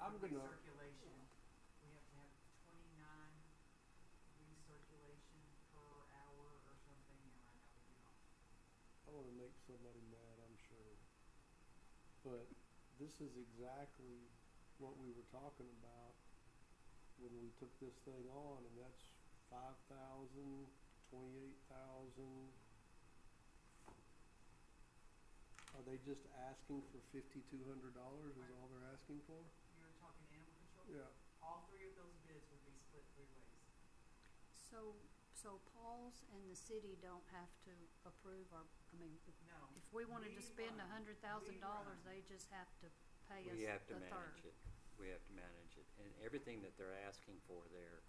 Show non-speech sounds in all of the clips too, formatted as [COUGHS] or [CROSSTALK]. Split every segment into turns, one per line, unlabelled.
I'm good enough.
recirculation, we have to have twenty-nine recirculation per hour or something, and I know we do not.
I want to make somebody mad, I'm sure. But this is exactly what we were talking about when we took this thing on, and that's five thousand, twenty-eight thousand. Are they just asking for fifty-two hundred dollars is all they're asking for?
You're talking animal control?
Yeah.
All three of those bids would be split three ways.
So, so Paul's and the city don't have to approve our, I mean, if-
No,
if we wanted to
We
spend a
run-
hundred
we
thousand dollars,
run.
they just have to pay us
We have to
the third.
manage it. We have to manage it. And everything that they're asking for there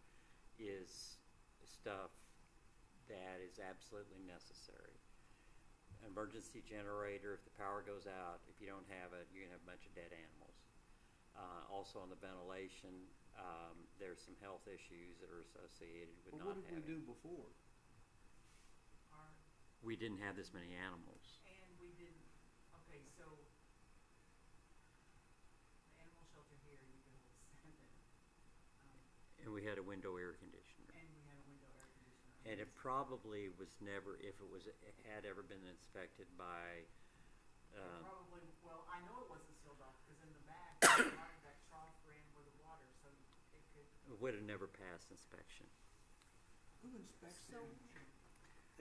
is stuff that is absolutely necessary. Emergency generator, if the power goes out, if you don't have it, you're gonna have a bunch of dead animals. Uh, also on the ventilation, um, there's some health issues that are associated with
Well,
not
what did we do
having.
before?
our,
We didn't have this many animals.
and we didn't, okay, so the animal shelter here, you could hold seven, um,
And we had a window air conditioner.
and we had a window air conditioner.
And it probably was never, if it was, had ever been inspected by,
It
um,
Probably, well, I know it wasn't sealed off, cause in the back, [COUGHS] the water- that trough ran with the water, so it could.
would have never passed inspection.
Who inspects
So,
it?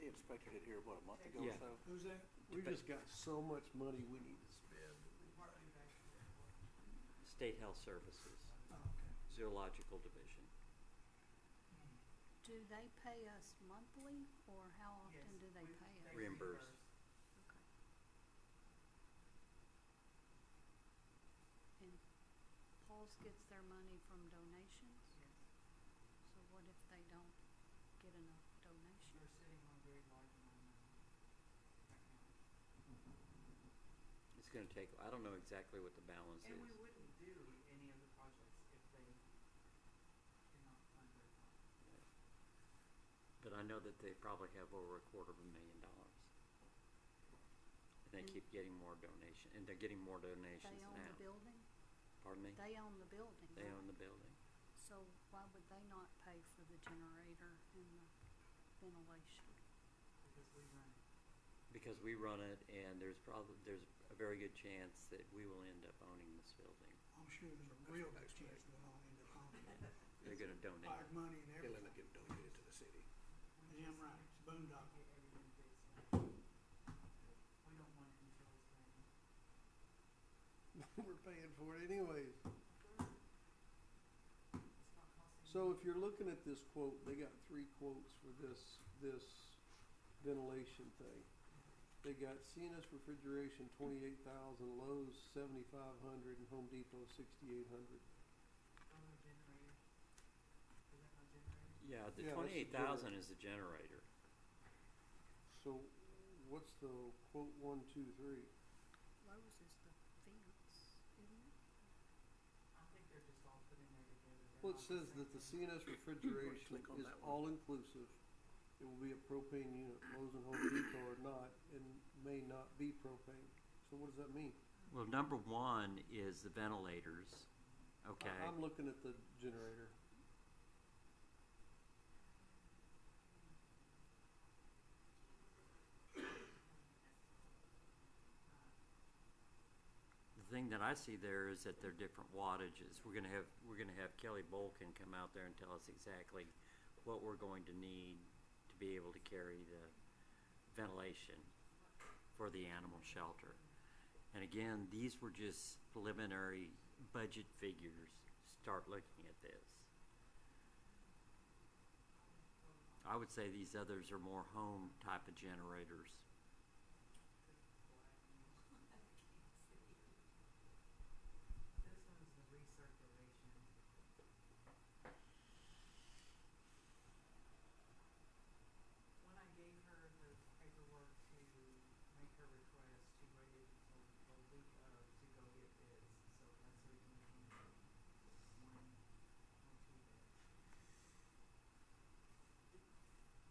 They inspected it here, what, a month ago
Yeah.
or so?
Who's that? We
Dep-
just got so much money we need to spend.
Partly back to the airport.
State Health Services,
okay.
Zoological Division.
do they pay us monthly, or how often
Yes,
do they
we-
pay us?
Re- Reimburse.
Okay. And Paul's gets their money from donations,
Yes,
so what if they don't get enough donations?
you're sitting on a very large amount of money right now.
It's gonna take, I don't know exactly what the balance
And we
is.
wouldn't do any of the projects if they did not fund their part.
But I know that they probably have over a quarter of a million dollars. And they
Mm.
keep getting more donation, and they're getting more
They
donations
own the
now.
building?
Pardon me?
They own the building,
They
right?
own the building.
So why would they not pay for the generator and the ventilation?
because we run it.
Because we run it and there's probably, there's a very good chance that we will end up owning this building.
I'm sure there's a real good chance we'll all end up on it.
They're gonna donate.
Hard money and
He'll end
everything.
up getting donated to the city.
We
Damn
just
right,
need to
it's boondoggle.
Get everything fixed now. We don't want it until it's ready.
[LAUGHS] We're paying for it anyways.
It's not costing.
So if you're looking at this quote, they got three quotes for this, this ventilation thing. They got CNS refrigeration, twenty-eight thousand, Lowe's seventy-five hundred, and Home Depot sixty-eight hundred.
Other generator. Is that my generator?
Yeah, the
Yeah, that's the
twenty-eight thousand is the generator.
So what's the quote one, two, three?
Lowe's is the fence, isn't it?
I think they're just all put in there together. They're
Well,
not
it
the
says
same
that the
thing.
[COUGHS]
CNS refrigeration
Click on
is
that one.
all-inclusive. It will be a propane unit, Lowe's and Home Depot are not, and may not be propane. So what does that mean?
Well, number one is the ventilators,
I-
okay?
I'm looking at the generator.
The thing that I see there is that they're different wattages. We're gonna have, we're gonna have Kelly Bolkin come out there and tell us exactly what we're going to need to be able to carry the ventilation for the animal shelter. And again, these were just preliminary budget figures. Start looking at this. I would say these others are more home type of generators.